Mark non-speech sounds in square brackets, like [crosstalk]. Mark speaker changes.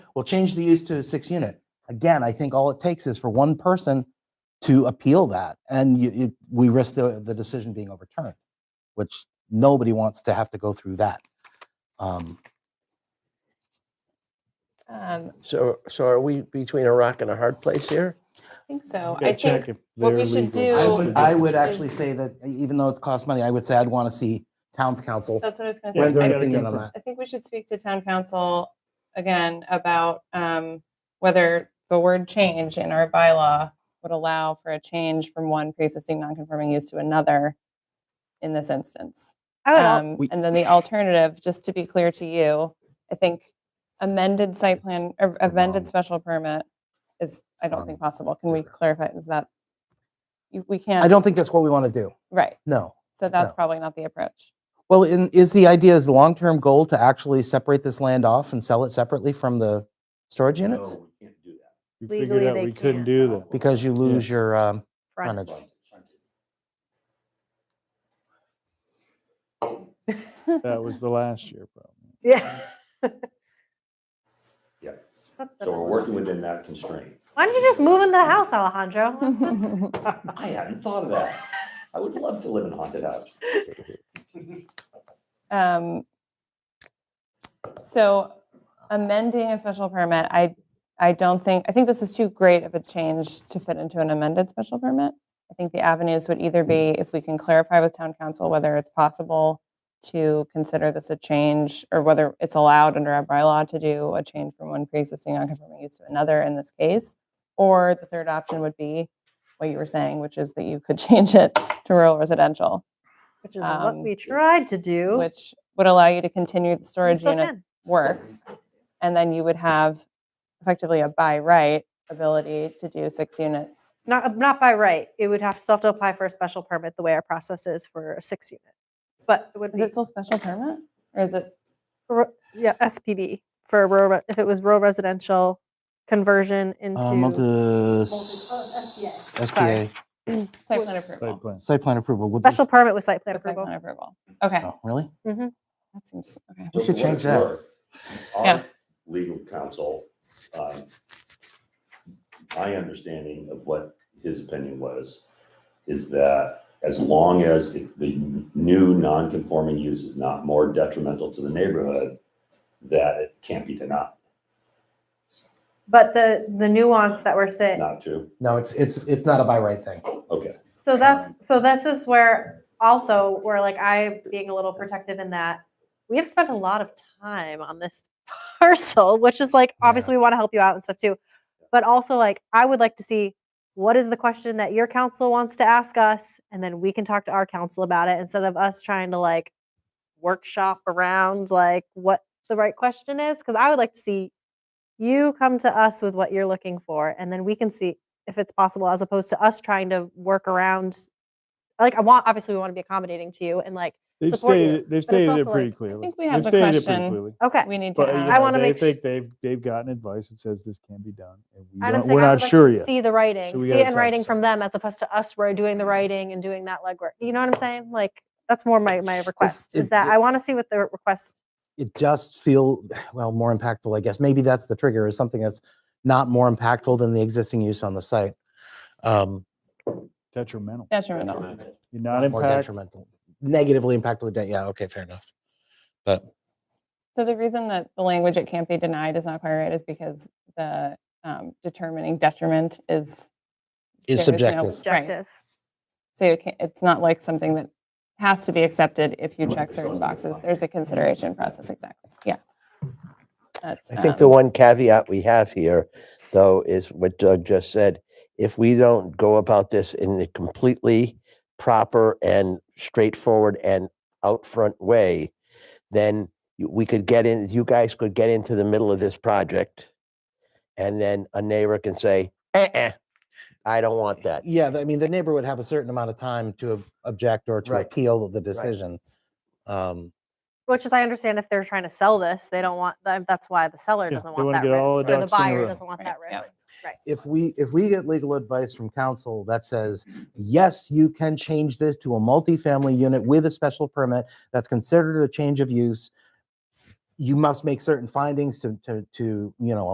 Speaker 1: We'll change the use to a six unit. Again, I think all it takes is for one person to appeal that and you, you, we risk the, the decision being overturned, which nobody wants to have to go through that. Um,
Speaker 2: Um,
Speaker 3: So, so are we between a rock and a hard place here?
Speaker 2: I think so.
Speaker 4: Gotta
Speaker 2: I
Speaker 4: check
Speaker 2: think,
Speaker 4: if
Speaker 2: what we
Speaker 4: they're
Speaker 2: should
Speaker 4: legal.
Speaker 1: I
Speaker 2: do-
Speaker 1: would, I would
Speaker 2: Yes.
Speaker 1: actually say that e, even though it costs money, I would say I'd want to see town's council.
Speaker 2: that's what I was gonna
Speaker 1: render
Speaker 2: say.
Speaker 1: an
Speaker 2: I-
Speaker 4: gotta
Speaker 1: opinion
Speaker 4: come
Speaker 1: on
Speaker 4: from-
Speaker 1: that.
Speaker 2: I think we should speak to town council again about um, whether the word change in our bylaw would allow for a change from one pre-existing non-conforming use to another in this instance.
Speaker 5: I would, al-
Speaker 2: Um,
Speaker 4: We-
Speaker 2: And then the alternative, just to be clear to you, I think amended site plan, or
Speaker 1: the wrong-
Speaker 2: amended special permit is, I
Speaker 1: It's
Speaker 2: don't
Speaker 1: wrong
Speaker 2: think possible. Can we
Speaker 1: measure.
Speaker 2: clarify, is that, you- we
Speaker 1: I
Speaker 2: can't,
Speaker 1: don't think that's what we want to do.
Speaker 2: right,
Speaker 1: No.
Speaker 2: so that's
Speaker 1: No.
Speaker 2: probably not the approach.
Speaker 1: Well, in, is the idea, is the long-term goal to actually separate this land off and sell it separately from the storage units?
Speaker 6: No, we can't do that.
Speaker 4: We
Speaker 5: Legally,
Speaker 4: figured out
Speaker 5: they
Speaker 4: we couldn't
Speaker 5: can't.
Speaker 4: do that.
Speaker 1: Because you lose your um,
Speaker 5: front.
Speaker 1: frontage.
Speaker 4: That was the last year problem.
Speaker 5: Yeah.
Speaker 1: [laughs]
Speaker 6: Yeah.
Speaker 5: What the-
Speaker 6: So we're working within that constraint.
Speaker 5: Why don't you just move into the house, Alejandro?
Speaker 2: [laughs]
Speaker 5: Let's [laughs] just-
Speaker 6: I hadn't thought of that. I would love to live in a haunted house.
Speaker 2: Um, So amending a special permit, I, I don't think, I think this is too great of a change to fit into an amended special permit. I think the avenues would either be if we can clarify with town council whether it's possible to consider this a change or whether it's allowed under our bylaw to do a change from one pre-existing non-conforming use to another in this case. Or the third option would be what you were saying, which is that you could [laughs] change it to rural residential,
Speaker 5: Which is what
Speaker 2: Um,
Speaker 5: we tried to do. We
Speaker 2: which would allow you to continue the storage
Speaker 5: still
Speaker 2: unit
Speaker 5: can.
Speaker 2: work, and then you would have effectively a by right ability to do six units.
Speaker 5: Not, not by right. It would have, still have to apply for a special permit, the way our process is for a six unit. But it would
Speaker 2: Is
Speaker 5: be,
Speaker 2: it still special permit? Or is it,
Speaker 5: ro- yeah, SPB for rural, re- if it was rural residential conversion
Speaker 1: Um, of
Speaker 5: into, Oh,
Speaker 1: the s-
Speaker 5: Sorry.
Speaker 1: SBA,
Speaker 2: site plan
Speaker 4: Site
Speaker 2: approval?
Speaker 4: plan.
Speaker 1: site plan approval. would this-
Speaker 5: special permit with site plan
Speaker 2: With Site
Speaker 5: approval.
Speaker 2: plan approval. Okay,
Speaker 1: Oh, Really?
Speaker 2: that seems, okay.
Speaker 1: We
Speaker 6: So
Speaker 1: should
Speaker 6: for what
Speaker 1: change
Speaker 6: it's
Speaker 1: that.
Speaker 6: worth,
Speaker 2: Yeah.
Speaker 6: Our legal counsel, um, my understanding of what his opinion was, is that as long as the- the new non-conforming use is not more detrimental to the neighborhood, that it can't be denied,
Speaker 5: But the, the nuance that we're saying,
Speaker 6: not true?
Speaker 1: No, it's, it's, it's not a by right thing.
Speaker 6: Okay.
Speaker 5: so that's, so this is where also, where like I being a little protective in that, we have spent a lot of time on this [laughs] parcel, which is like,
Speaker 1: Yeah.
Speaker 5: obviously we want to help you out and stuff too. But also like, I would like to see, what is the question that your council wants to ask us? And then we can talk to our council about it instead of us trying to like workshop around like what the right question is. Cause I would like to see you come to us with what you're looking for and then we can see if it's possible as opposed to us trying to work around. Like I want, obviously we want to be accommodating to you and like,
Speaker 4: They've
Speaker 5: support you,
Speaker 4: stated, they've
Speaker 5: but it's
Speaker 4: stated it
Speaker 5: also
Speaker 4: pretty
Speaker 5: like-
Speaker 4: clearly.
Speaker 2: think we have
Speaker 4: They've
Speaker 2: the
Speaker 4: stated it pretty
Speaker 2: question.
Speaker 4: clearly.
Speaker 5: okay.
Speaker 2: We need to
Speaker 4: But you
Speaker 5: I
Speaker 2: ask.
Speaker 4: know,
Speaker 5: wanna
Speaker 4: they
Speaker 5: make
Speaker 4: think they've, they've gotten advice that says this can be done. and we
Speaker 5: And I'm
Speaker 4: don't-
Speaker 5: saying
Speaker 4: We're
Speaker 5: I
Speaker 4: not
Speaker 5: would like
Speaker 4: sure
Speaker 5: to
Speaker 4: yet.
Speaker 5: see the writing,
Speaker 4: So we
Speaker 5: see
Speaker 4: gotta
Speaker 5: it in
Speaker 4: talk
Speaker 5: writing
Speaker 4: to Mm-hmm.
Speaker 5: from them as opposed to us where doing the writing and doing that legwork. You know what I'm saying? Like that's more my my request is
Speaker 1: it-
Speaker 5: that
Speaker 1: it-
Speaker 5: I want to see what the request.
Speaker 1: it does feel well more impactful i guess maybe that's the trigger is something that's not more impactful than the existing use on the site um
Speaker 4: Detrimental.
Speaker 2: Detrimental.
Speaker 4: You're not
Speaker 1: more
Speaker 4: impacted.
Speaker 1: detrimental negatively impactful to- yeah okay fair enough but
Speaker 2: So the reason that the language it can't be denied is not quite right is because the um, determining detriment
Speaker 1: is
Speaker 2: is, There is no-
Speaker 1: subjective
Speaker 5: Objective.
Speaker 2: so you can't, it's not like something that has to be accepted if you check
Speaker 6: It's
Speaker 2: certain
Speaker 6: also
Speaker 2: boxes.
Speaker 6: defined.
Speaker 3: Mm-hmm.
Speaker 2: There's a consideration process, exactly, yeah. That's,
Speaker 3: I think the
Speaker 2: um,
Speaker 3: one caveat we have here, though, is what Doug just said. If we don't go about this in a completely proper and straightforward and out front way, then y- we could get in, you guys could get into the middle of this project. And then a neighbor can say, uh-uh, I don't want that.
Speaker 1: yeah i mean the neighbor would have a certain amount of time to ob- object or to
Speaker 3: Right.
Speaker 1: appeal the decision um
Speaker 5: Which is I understand if they're trying to sell this, they don't want that. That's why the seller
Speaker 4: Yeah,
Speaker 5: doesn't
Speaker 4: they
Speaker 5: want
Speaker 4: wanna
Speaker 5: that
Speaker 4: get all
Speaker 5: risk,
Speaker 4: the
Speaker 5: or the
Speaker 4: ducks in a
Speaker 5: buyer
Speaker 4: row.
Speaker 5: doesn't want
Speaker 2: Right,
Speaker 5: that
Speaker 2: yeah.
Speaker 5: risk.
Speaker 1: if we if we get legal advice from council that says yes you can change this to a multifamily unit with a special permit that's considered a change of use you must make certain findings to to to you know